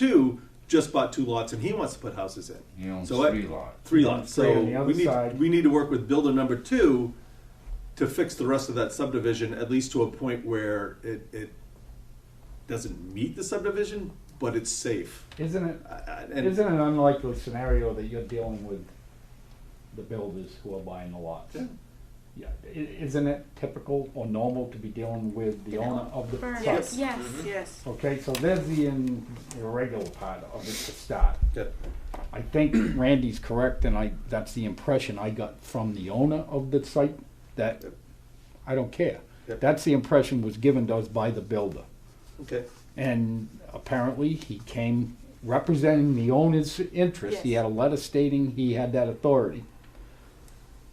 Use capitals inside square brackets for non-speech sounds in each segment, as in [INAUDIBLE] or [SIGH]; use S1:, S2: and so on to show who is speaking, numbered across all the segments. S1: two just bought two lots and he wants to put houses in.
S2: He owns
S1: So what-
S2: three lots.
S1: Three lots.
S3: Three
S1: So
S3: on the other
S1: we need,
S3: side.
S1: we need to work with builder number two to fix the rest of that subdivision, at least to a point where it, it doesn't meet the subdivision, but it's safe.
S3: Isn't it?
S1: I- I-
S3: Isn't
S1: And
S3: it an unlikely scenario that you're dealing with the builders who are buying the lots?
S1: Yeah.
S3: Yeah, i- isn't it typical or normal to be dealing with the owner of the
S4: Burn.
S3: site?
S4: Yes.
S5: Yes.
S1: Mm-hmm.
S4: Yes.
S3: Okay, so there's the in- irregular part of it to start.
S1: Yeah.
S3: I think Randy's correct, and I, that's the impression I got from the owner of the site, that I don't care.
S1: Yep.
S3: That's the impression was given to us by the builder.
S1: okay,
S3: And apparently, he came representing the owner's interest. He
S4: Yes.
S3: had a letter stating he had that authority.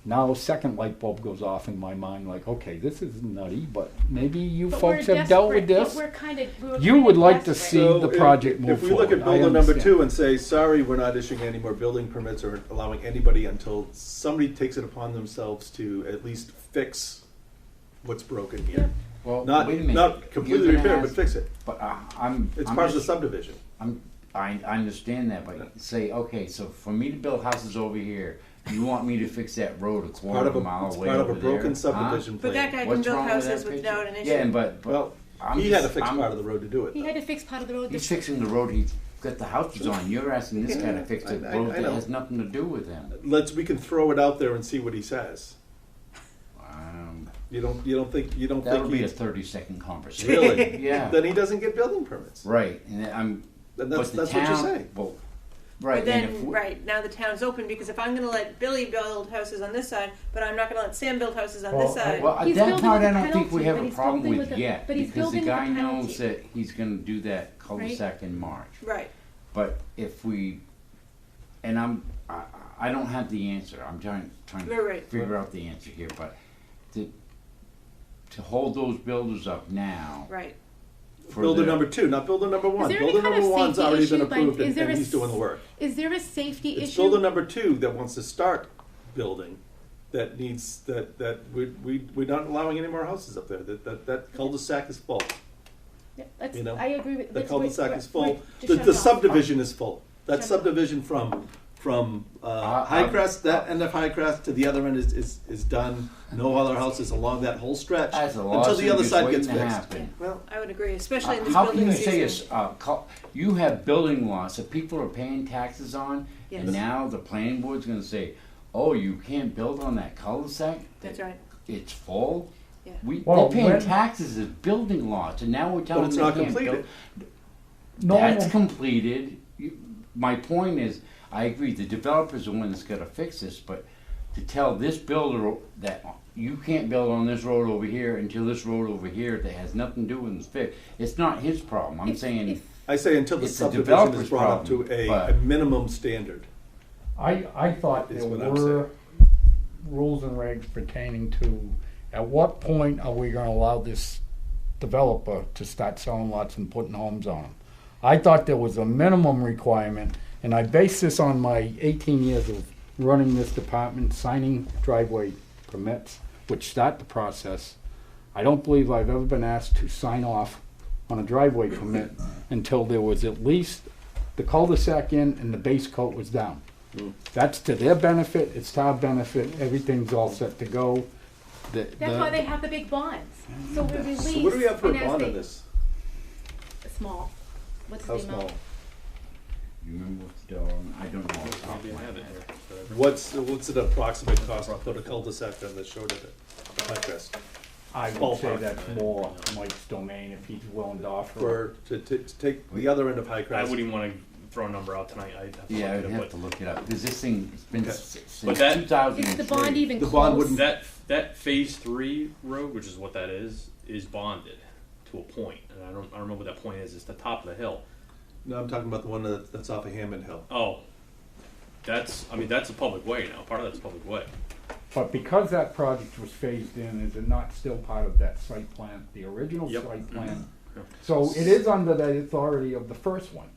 S3: Now, a second light bulb goes off in my mind, like, okay, this is nutty, but maybe you
S5: But
S3: folks
S5: we're
S3: have dealt with
S5: desperate, but
S3: this.
S5: we're kind of, we were
S3: You
S5: kind
S3: would
S5: of
S3: like to
S5: desperate.
S3: see
S1: So
S3: the
S1: if-
S3: project move
S1: If we look
S3: forward.
S1: at
S3: I
S1: builder number
S3: understand.
S1: two and say, sorry, we're not issuing any more building permits or allowing anybody until somebody takes it upon themselves to at least fix what's broken here.
S2: Well,
S1: Not,
S2: Oh, wait a minute.
S1: not completely
S2: You're gonna
S1: repair, but
S2: ask-
S1: fix it.
S2: But I, I'm.
S1: It's
S2: I'm
S1: part of the
S2: just-
S1: subdivision.
S2: I'm, I, I understand that, but say, okay, so for me to build houses over here, you want me to fix that road a
S1: Part
S2: quarter
S1: of
S2: of a mile
S1: a, it's
S2: away
S1: part of a
S2: over there,
S1: broken
S2: huh?
S1: subdivision plan.
S4: But that guy can
S2: What's
S4: build
S2: wrong with
S4: houses
S2: that
S4: without
S2: picture?
S4: an
S2: Yeah,
S4: issue.
S2: but, but
S1: Well,
S2: I'm
S1: he had to
S2: just-
S1: fix
S2: I'm-
S1: part of the road to do it.
S5: He
S1: though.
S5: had to fix part of the road.
S2: He's
S5: that-
S2: fixing the road he got the houses on. You're asking this guy
S1: Yeah,
S2: to fix the
S1: I- I-
S2: road
S1: I know.
S2: that has nothing to do with him.
S1: Let's we can throw it out there and see what he says.
S2: Um,
S1: You don't you don't think you don't
S2: that'll
S1: think
S2: be
S1: he
S2: a thirty-second conversation.
S1: really
S2: [LAUGHS] Yeah.
S1: then he doesn't get building permits.
S2: Right, and I'm.
S1: And that's
S2: but the
S1: that's what you're
S2: town-
S1: saying.
S2: Well, right,
S4: But
S2: and if
S4: then,
S2: we-
S4: right, now the town's open, because if I'm gonna let Billy build houses on this side, but I'm not gonna let Sam build houses on this
S3: Well, I-
S4: side.
S2: Well,
S5: He's
S2: that
S5: building
S2: part
S5: with
S2: I
S5: a
S2: don't think we
S5: penalty,
S2: have
S5: but
S2: a
S5: he's
S2: problem
S5: building
S2: with
S5: with a-
S2: yet,
S5: but he's
S2: because the
S5: building with a
S2: guy knows
S5: penalty.
S2: that he's gonna do that cul-de-sac in March.
S4: Right,
S2: But if we, and I'm, I, I don't have the answer, I'm trying, trying
S4: Right,
S2: to
S4: right.
S2: figure out the answer here, but to, to hold those builders up now
S4: right.
S2: for
S1: Builder
S2: their-
S1: number two, not builder number one.
S5: there any
S1: Builder
S5: kind
S1: number
S5: of
S1: one's
S5: safety
S1: already been
S5: issue by-
S1: approved
S5: is
S1: and,
S5: there
S1: and
S5: a
S1: he's doing
S5: s-
S1: the work.
S5: Is there a safety
S1: It's
S5: issue?
S1: builder number two that wants to start building that needs that that we we we're not allowing any more houses up there. That that, that cul-de-sac is full.
S5: Yeah, let's-
S1: you know,
S5: I agree with.
S1: The
S5: let's-
S1: cul-de-sac
S5: we're-
S1: is
S5: we're-
S1: full.
S5: just
S1: The,
S5: shut
S1: the
S5: it off.
S1: subdivision is full. That
S5: Shut it
S1: subdivision from, from, uh,
S2: Uh,
S1: Highcrest, that
S2: uh,
S1: end of Highcrest to the other end is, is, is done. No other houses along that whole stretch.
S2: That's a
S1: Until the
S2: lawsuit
S1: other
S2: is
S1: side
S2: waiting
S1: gets
S2: to
S1: fixed.
S2: happen.
S1: Well,
S4: I would agree, especially in this
S2: How can
S4: building
S2: you say it's,
S4: season.
S2: uh, cul- you have building lots that people are paying taxes on, and
S4: Yes.
S2: now the planning board's gonna say, oh, you can't build on that cul-de-sac?
S4: That's
S2: that
S4: right.
S2: It's full?
S4: Yeah.
S2: We, they're
S3: Well,
S2: paying
S3: when-
S2: taxes as building lots, and now we're
S1: but
S2: telling
S1: it's
S2: them
S1: not
S2: they can't
S1: completed.
S2: build.
S3: Normal-
S2: That's completed. You- My point is, I agree, the developer's the one that's gotta fix this, but to tell this builder that you can't build on this road over here until this road over here that has nothing to do with this fix, it's not his problem, I'm
S5: If-
S2: saying.
S5: if-
S1: I say until the
S2: It's the
S1: subdivision is
S2: developer's
S1: brought up to
S2: problem,
S1: a,
S2: but-
S1: a minimum standard.
S3: I, I thought
S1: Is
S3: there
S1: what I'm saying.
S3: were rules and regs pertaining to, at what point are we gonna allow this developer to start selling lots and putting homes on them? I thought there was a minimum requirement, and I base this on my eighteen years of running this department, signing driveway permits, which start the process. I don't believe I've ever been asked to sign off on a driveway permit until there was at least the cul-de-sac in and the base coat was down. That's to their benefit, it's to our benefit, everything's all set to go. The-
S5: That's
S3: the-
S5: why they have the big bonds. So we release.
S1: So what do we have for a
S5: and as
S1: bond on
S5: they-
S1: this?
S5: Small. What's
S1: How
S5: the amount?
S1: small?
S2: You remember what's the dollar? amount? I don't know. off the top of my head.
S1: What's, what's an approximate cost to put a cul-de-sac on the short of it, the Highcrest,
S3: I would say
S1: Ballpark.
S3: that's more Mike's domain if he's willing to offer.
S1: for, to, to, to take the other end of Highcrest?
S6: I wouldn't even want to throw a number out tonight. I'd have to
S2: Yeah,
S6: look
S2: I'd
S6: it
S2: have
S6: up.
S2: to look it up, because this thing, it's been
S1: Okay.
S2: s- since
S6: But that-
S2: two thousand
S5: Is
S2: and
S5: the bond
S2: three.
S5: even
S1: The
S5: close?
S1: bond
S6: But
S1: wouldn't-
S6: that that phase three road, which is what that is, is bonded to a point, and I don't I don't know what that point is. It's the top of the hill.
S1: No, I'm talking about the one that, that's off of Hammond Hill.
S6: Oh, that's I mean that's a public way now. Part of that's a public way.
S3: But because that project was phased in, is it not still part of that site plan, the original
S6: Yep.
S1: Mm-hmm.
S3: site plan?
S6: Yep.
S3: So it is under the authority of the first one,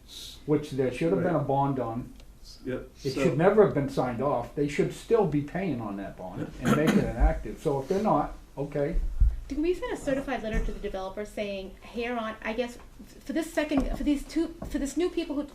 S3: which there should have been a
S1: Right.
S3: bond on.
S1: Yep.
S3: It
S1: so-
S3: should never have been signed off. They should still be paying on that bond and make it inactive. So if they're not, okay,
S5: Can we send a certified letter to the developer saying, here on, I guess, f- for this second, for these two, for this new people who